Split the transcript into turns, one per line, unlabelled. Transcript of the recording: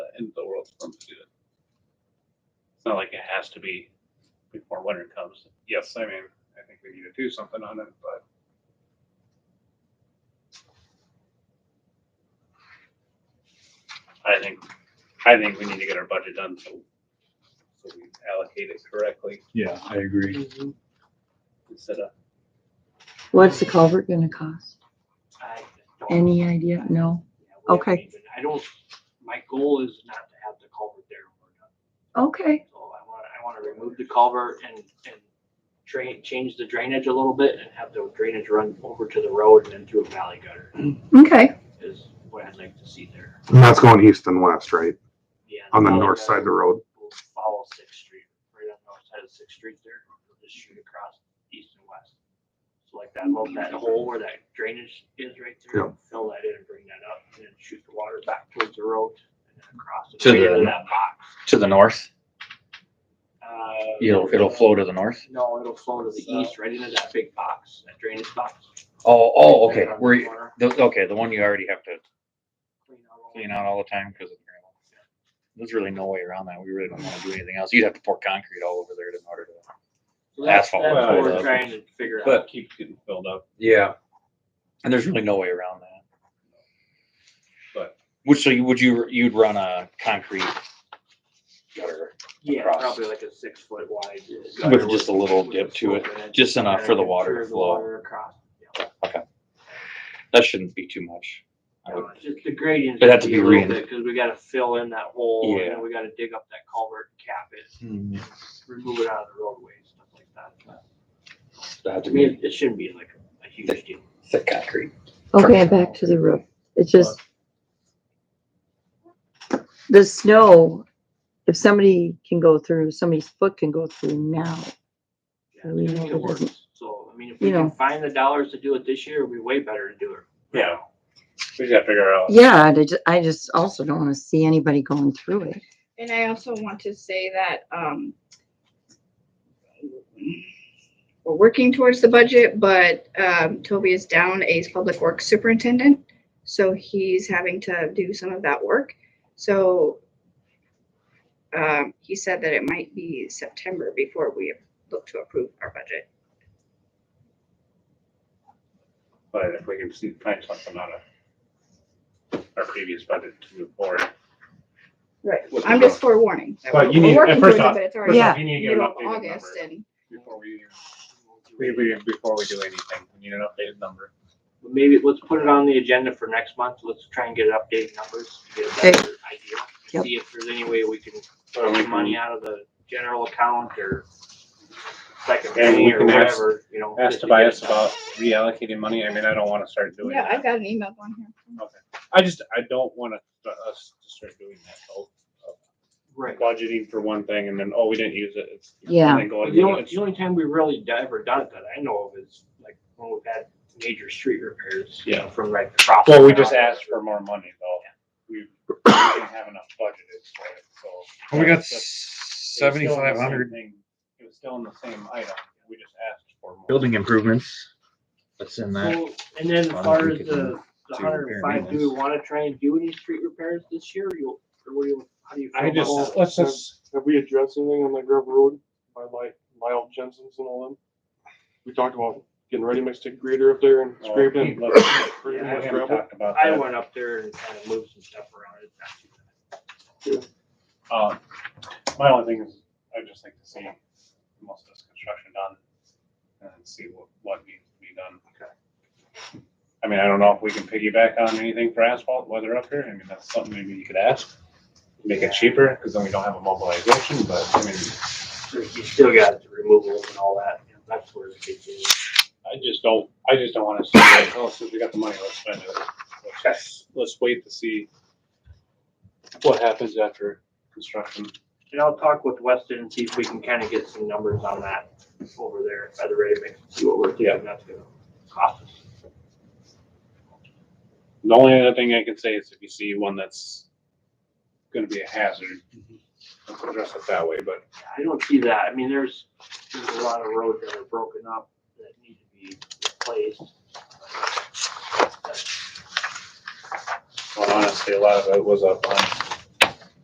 difficult for them to do it. It's not like it has to be before winter comes. Yes, I mean, I think we need to do something on it, but I think, I think we need to get our budget done so, so we allocate it correctly
Yeah, I agree.
instead of.
What's the culvert gonna cost?
I don't.
Any idea? No?
yeah, we haven't
okay.
even- I don't, my goal is not to have the culvert there. when we're done.
Okay,
So I want, I want to remove the culvert and, and train, change the drainage a little bit and have the drainage run over to the road and then through a valley gutter
okay.
is what I'd like to see there.
And that's going east and west, right?
Yeah,
On the
valley
north
gutter
side of the road.
will Follow Sixth Street, right on the north side of Sixth Street there, we'll just shoot across east and west. So like that, little- that hole where that drainage is right there, fill that in and bring that up and then shoot the water back towards the road and then across. it,
To
right into
the-
That box.
To the north,
Uh,
it'll, it'll flow to the north?
No, it'll flow to the east, right into that big box, that drainage box.
Oh, oh, okay,
Right around the
where, you-
corner,
the- okay, the one you already have to
clean out all-
clean out all the time because of gravel. There's really no way around that. We really don't want to do anything else. You'd have to pour concrete all over there in order to.
So that's-
asphalt.
That's
Well,
what we're trying to figure out.
But-
Keeps getting filled up.
Yeah. And there's really no way around that.
But-
Which, so you, would you, you'd run a concrete gutter,
Yeah,
across.
probably like a six foot wide.
With just a little dip to it, just enough for the water to
Sure, the
flow.
water Across. yeah.
that shouldn't be too much. I would-
Uh, Just the gradient.
It'd have to be re-
Because we gotta fill in that hole, and
Yeah.
then we gotta dig up that culvert, cap it,
Hmm,
remove it out of the roadway, stuff like that.
That'd have
To
to
me,
be
it- it shouldn't be like a huge deal.
thick concrete.
Okay, back to the roof. It's just the snow, if somebody can go through, somebody's foot can go through now.
Yeah,
I mean,
I think
it
it works.
doesn't-
So, I mean, if
you
we
know.
can find the dollars to do it this year, it'd be way better to do it.
Yeah. We just gotta figure out.
Yeah, I just, I just also don't wanna see anybody going through it.
And I also want to say that, um, we're working towards the budget, but, um, Toby is down a public works superintendent. So he's having to do some of that work. So, um, he said that it might be September before we look to approve our budget.
But if we can see, find something out of our previous budget to move forward.
Right.
With the
I'm just forewarning. that
But
we're-
you
we're
need-
working
and first
towards it,
off-
but it's
First
already
off,
Yeah.
You need to get an
Middle of
updated number
August and
before we, we- we- before we do anything. We need an updated number.
Maybe, let's put it on the agenda for next month, let's try and get updated numbers, to get a
Okay.
better idea.
Yep.
and See if there's any way we can
Or we
pull
can-
money out of the general account or second
And we
penny or
can ask-
whatever, you know.
Ask
just to get
Tobias
it done.
about reallocating money. I mean, I don't wanna start doing
Yeah, I've
that.
got an email going here.
I just, I don't wanna, uh, us to start doing that. though.
Right.
Budgeting for one thing and then, oh, we didn't use it. It's-
Yeah.
and then going
The only,
to-
the only time we really d- ever done it that I know of is like when we've had major street repairs, you know, from like the crop.
Well, we just asked for more money though. We we didn't have enough budgeted for it, so.
We got
It was still in the same
seventy-five hundred
thing. It was still in the same item. We just asked for more.
Building improvements. That's in that.
Well, And then as
I don't
far
think
as
we can
the, the
do
hundred and five, do we
maintenance.
wanna try and do any street repairs this year? You, or what do you, how do you?
I
feel about
just,
that?
let's just.
Have we addressed anything on that Grove Road by like Lyle Jensen's and all them? We talked about getting ready mix to grader up there and scraped
Well,
it.
let's- We
pretty much
haven't
gravel.
talked about
I
that.
went up there and kind of moved some stuff around. It's not too bad.
Uh, My only thing is, I'd just like to see most of this construction done and see what, what needs to be done.
Okay.
I mean, I don't know if we can piggyback on anything for asphalt, whether up here, I mean, that's something maybe you could ask. Make it cheaper, because then we don't have a mobilization, but I mean,
You still got the removals and all that, you know, that's where it gets in.
I just don't, I just don't wanna say, like, oh, since we got the money, let's spend it. Let's- Let's wait to see what happens after construction.
And I'll talk with Weston and see if we can kind of get some numbers on that over there by the ready mix, see what we're
Yeah.
thinking that's gonna cost us.
The only other thing I can say is if you see one that's gonna be a hazard, let's address it that way, but
I don't see that. I mean, there's, there's a lot of roads that are broken up that need to be replaced.
well, honestly, a lot of it was up on